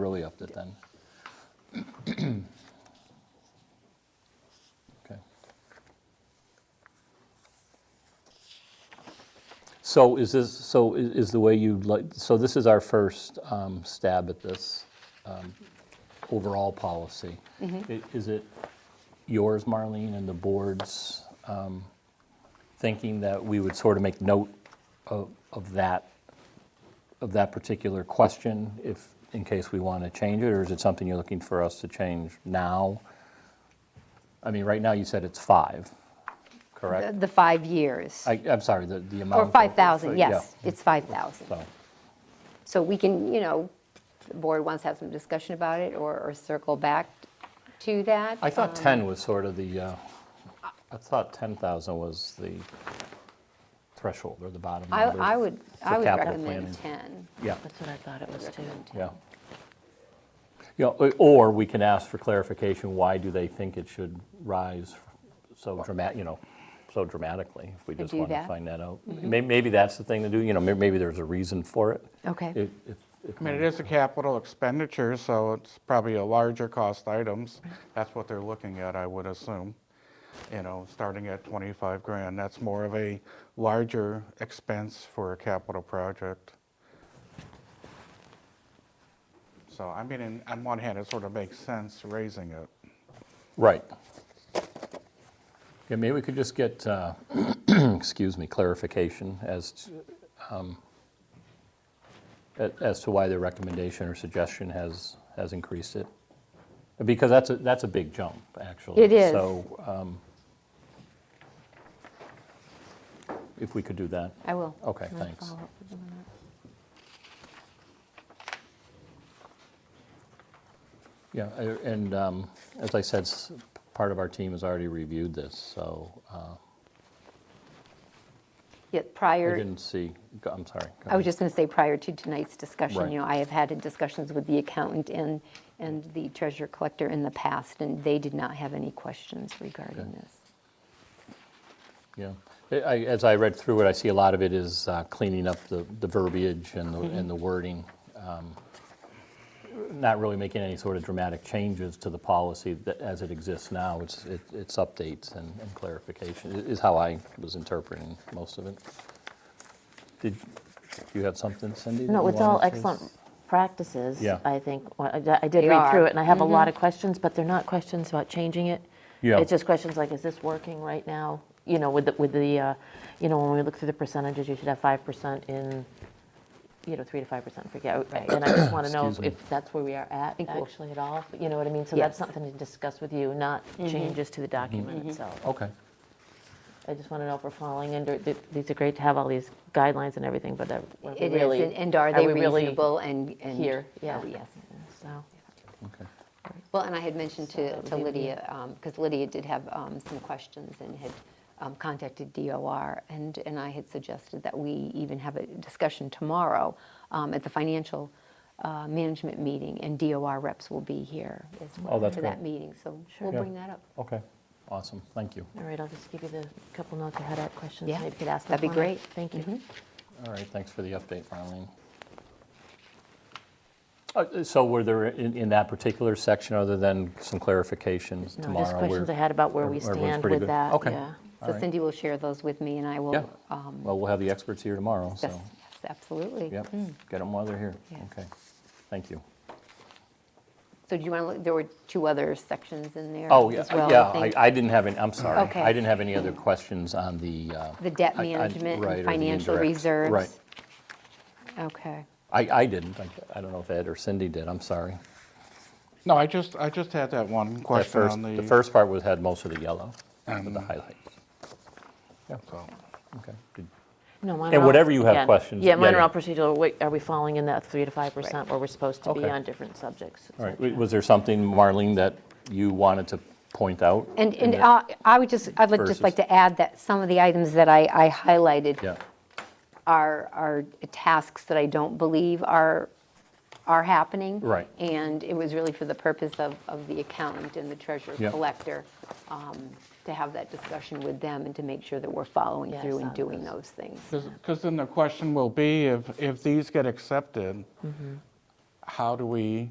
really upped it then. Okay. So is this, so i- is the way you, like? so this is our first um, stab at this um, overall policy. Mm-hmm. I- Is it yours, Marlene, and the board's um, thinking that we would sort of make note of of that, of that particular question, if, in case we want to change it, or is it something you're looking for us to change now? I mean, right now, you said it's five, The correct? the five years, I, I'm sorry, the, the amount. or of- 5,000, yeah. yes, it's 5,000. So, So we can, you know, the board wants to have some discussion about it or or circle back to that. I thought Um, 10 was sort of the, uh, I thought 10,000 was the threshold or the bottom I number. I would, I for would capital recommend planning. 10. Yeah, That's what I thought it was too. yeah. You know, o- or we can ask for clarification, why do they think it should rise so dramatic, you know, so dramatically? If we just do want to that. Mm-hmm. find that out. May- Maybe that's the thing to do, you know, may- maybe there's a reason for it. Okay, If- if- if I mean, it not- is a capital expenditure, so it's probably a larger cost items. That's what they're looking at, I would assume. You know, starting at 25 grand, that's more of a larger expense for a capital project. So, I mean, in- on one hand, it sort of makes sense raising it. Right. Yeah, maybe we could just get, uh, excuse me, clarification as, to, um, a- as to why their recommendation or suggestion has, has increased it. Because that's a, that's a big jump, actually. It is. So um, if we could do that. I will. Okay, I'll thanks. follow up with them on that. Yeah, I- and um, as I said, s- part of our team has already reviewed this, so uh, Yeah, I prior. didn't see, go- I'm sorry. go I ahead. was just going to say, prior to tonight's discussion, Right. you know, I have had discussions with the accountant and, and the treasurer collector in the past, and they did not have any questions regarding Okay. this. Yeah, I- I- as I read through it, I see a lot of it is uh, cleaning up the the verbiage and Mm-hmm. the and the wording, um, not really making any sort of dramatic changes to the policy that- as it exists now. It's it- it's updates and and clarification, i- is how I was interpreting most of it. Did, you have something, Cindy? that No, you it's all wanted to- excellent practices, Yeah. I think. Well, I I did They read through are. Mm-hmm. it, and I have a lot of questions, but they're not questions about changing it. Yeah. It's just questions like, is this working right now? You know, with the, with the, uh, you know, when we look through the percentages, you should have 5% in, you know, 3 to 5%, forget. And I just want to know Excuse me. if that's where we are at, Think we'll- actually, at all, you know what I mean? So that's Yes. Mm-hmm. something to discuss with you, not changes to the document itself. Okay, I just want to know if we're falling under, th- these are great to have all these guidelines and everything, but are are we It really? is, and- and are they we really reasonable and? and- Here, oh, yeah. Yes. So, okay. Well, and I had mentioned to that to would be the- Lydia, because Lydia did have um, some questions and had um, contacted DOR, and, and I had suggested that we even have a discussion tomorrow um, at the financial uh, management meeting, and DOR reps will be here as well Oh, that's for that great. meeting, so we'll Yeah. bring that up. Okay, awesome, thank you. all right, I'll just give you the couple notes I had at questions. Yeah, Maybe you could ask them. that'd be on it. great. Mm-hmm. Thank you. All right, thanks for the update, Marlene. Uh, So were there, in, in that particular section, other than some clarifications No, tomorrow? just questions I we're- had about where we everyone's stand pretty with good? that. Okay. yeah. All So right. Cindy will share those with me, and I will. Yeah, um, well, we'll have the experts here tomorrow, Yes, so, yes, absolutely. yep, get them while they're here. Yeah. Okay, thank you. So do you want to, look? there were two other sections in there Oh, yeah, as well, I yeah, I, think. I didn't have any, I'm sorry. Okay. I didn't have any other questions on the. uh, The debt I- I- management right, or and the financial indirect- reserves. Right, Okay. I, I didn't, I- I don't know if Ed or Cindy did, I'm sorry. No, I just, I just had that one That question first, on the. Um, the first part was, had most of the yellow, with the highlights. Yeah, so, okay. Did- No, mine And are all- whatever you have yeah, questions, Yeah, mine yeah, are all yeah. procedural. Wait, Are we falling in that 3 to 5% where we're supposed to be Okay. on different subjects? et All right, cetera? w- was there something, Marlene, that you wanted to point out? And, in the- and I I would just, I'd like- just Versus- like to add that some of the items that I, I highlighted Yeah, are, are tasks that I don't believe are, are happening. Right. And it was really for the purpose of, of the accountant and the treasurer Yeah. collector, um, to have that discussion with them and to make sure that we're following Yes, through and on doing those. those things. Because then the question will be, if, if these get accepted, how do we